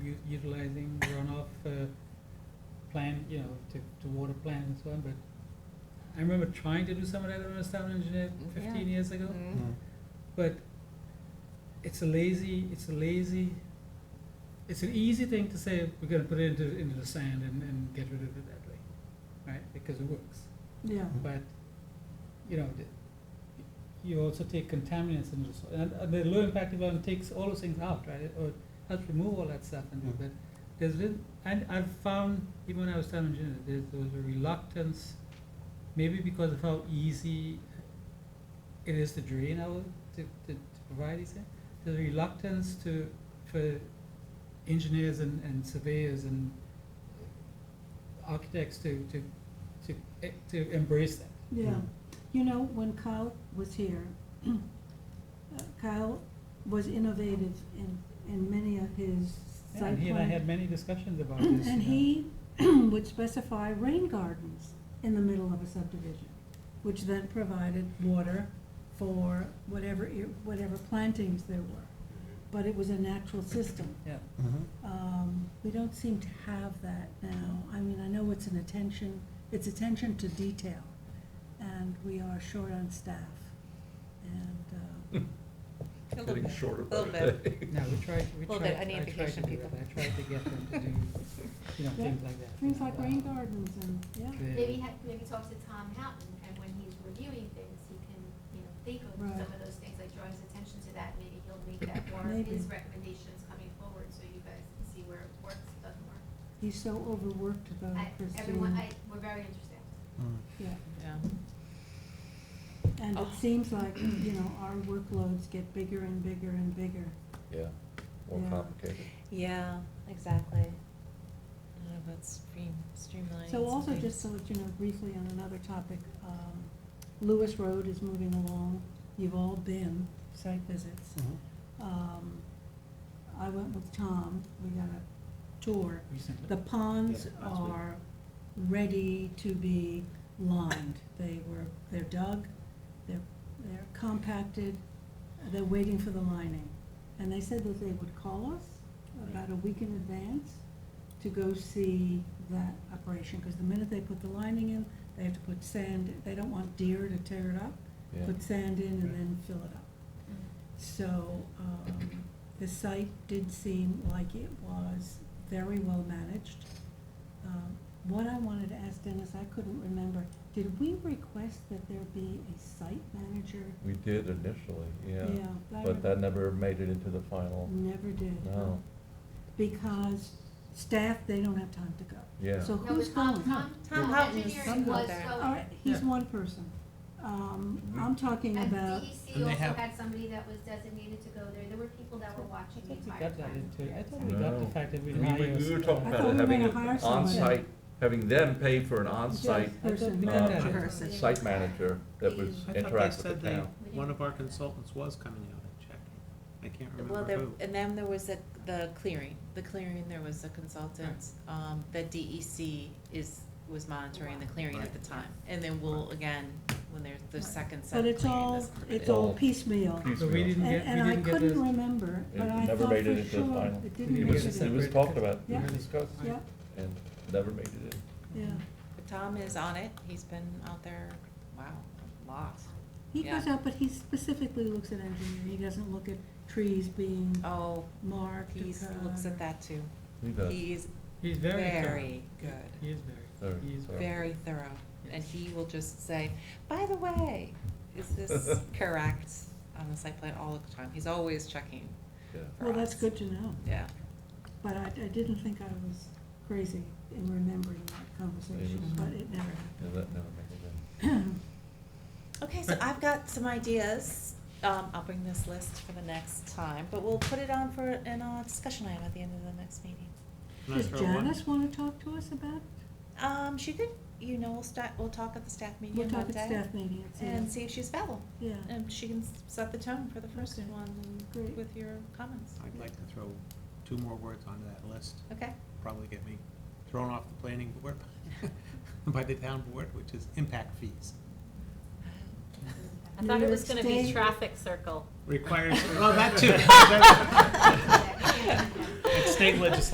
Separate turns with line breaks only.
u- utilizing runoff, uh, plan, you know, to, to water plants and so on, but I remember trying to do some of that when I was town engineer fifteen years ago,
Mm.
Mm-hmm.
but it's a lazy, it's a lazy, it's an easy thing to say, we're gonna put it into, into the sand and, and get rid of it that way, right, because it works.
Yeah,
But, you know, the- you also take contaminants into the soil, and and the low impact environment takes all those things out, right? Or helps remove all that stuff and,
Yeah.
but there's, lit- and I've found, even when I was town engineer, there's, there was a reluctance, maybe because of how easy it is to drain out, to, to, to provide these things. There's a reluctance to, for engineers and, and surveyors and architects to, to, to, eh, to embrace that.
yeah.
Mm.
You know, when Kyle was here, uh, Kyle was innovative in, in many of his site
Yeah, and he and I
plan-
had many discussions about this.
And
you know.
he would specify rain gardens in the middle of a subdivision, which then provided water for whatever, ir- whatever plantings there were. But it was a natural system.
Yeah,
Mm-hmm.
Um, we don't seem to have that now. I mean, I know it's an attention, it's attention to detail, and we are short on staff. And, uh,
A little
Getting
bit.
shorter by
Little
the
bit.
day.
no, we tried, we
Little
tried,
bit, I
I
need
tried
to
to
patient
do it,
people.
I tried to get them to do, you know,
Yeah.
things like that.
things like rain gardens and, yeah,
Maybe ha maybe talk to Tom Houghton, and when he's reviewing things, he can, you know, think of
Right.
some of those things, like draw his attention to that, maybe he'll make that more of
Maybe.
his recommendations coming forward, so you guys can see where it works, doesn't work.
he's so overworked though,
I,
Christine.
everyone, I, we're very interested.
Yeah.
Yeah.
And
Oh.
it seems like, you know, our workloads get bigger and bigger and bigger.
Yeah, more
Yeah.
complicated.
Yeah, exactly. I don't know about stream, streamlining.
So also,
something.
just to let you know briefly on another topic, um, Lewis Road is moving along. You've all been, site visits. Um, I went with Tom, we got a tour.
Recently.
The ponds
Yeah, last week.
are ready to be lined. They were, they're dug, they're, they're compacted, they're waiting for the lining. And they said that they would call us about a week in advance to go see that operation, because the minute they put the lining in, they have to put sand, they don't want deer to tear it up,
Yeah.
put sand in and then fill it up.
Mm.
So, um, the site did seem like it was very well managed. Um, What I wanted to ask Dennis, I couldn't remember, did we request that there be a site manager?
We did initially, yeah.
I
But that never made it into the final,
Never did.
no,
Because staff, they don't have time to go.
yeah.
So
No,
who's
it's Tom,
going?
Tom,
Tom
Tom
Houghton
Engineering
is
was
there.
All
going,
right, he's
Yeah.
one person. Um, I'm talking
and
about,
DEC
And they
also
have-
had somebody that was designated to go there, there were people that were
I
watching the
thought we
entire
got that
time.
into, I thought we got the
No.
fact that we
We,
hire.
we we were talking
I
uh,
thought we
about
were
having
gonna
an
hire someone.
on-site, having them pay for an on-site
I thought we
Person.
did
Uh,
that.
Person.
site manager that was
I
interact
thought they said
with the
they,
town.
one of our consultants was coming out and checking. I can't
Well,
remember
there,
who.
and then there was a, the clearing, the clearing, there was a consultant, um, that DEC is, was monitoring the clearing at the
Right.
time. And then we'll, again, when there's the
Right.
second set
but
of
it's
clearing,
all,
this.
it's all
All
piecemeal.
So we didn't get,
And,
we
and I
didn't get
couldn't
this,
remember, but I
It
thought
never
for
made it into the
sure
final.
We
it didn't
It
make
didn't
it.
get
was,
this.
it was talked about, it
Yeah.
was discussed,
Yeah,
and never made it in.
yeah.
But Tom is on it, he's been out there, wow, a lot.
He
Yeah.
goes out, but he specifically looks at engineering. He doesn't look at trees being
Oh,
marked
he looks at that too.
He does.
He is
he's very thorough.
very good.
He is very,
Very
he is
thorough.
very.
very thorough, and
Yes.
he will just say, by the way, is this correct on the site plan all the time? He's always checking
Yeah.
for
Well, that's
us.
good to know,
Yeah,
but I, I didn't think I was crazy in remembering that conversation,
Mhm.
but it never
Yeah,
happened.
that never made it in.
okay, so I've got some ideas, um, I'll bring this list for the next time, but we'll put it on for an, uh, discussion item at the end of the next meeting.
I'm not
Does
sure what-
Janice wanna talk to us about?
Um, she could, you know, we'll start, we'll talk at the staff meeting
We'll
one day.
talk at staff meeting, it's,
And
yeah,
see if she's available,
yeah,
and she can s- set the tone for the first
Okay.
one
Great.
with your comments,
I'd like to throw two more words onto that list,
okay?
probably get me thrown off the planning board by the town board, which is impact fees.
I
New
thought it
York
was gonna
State.
be traffic circle.
Requires, well, Oh, that too.
Yeah.
It's state legislation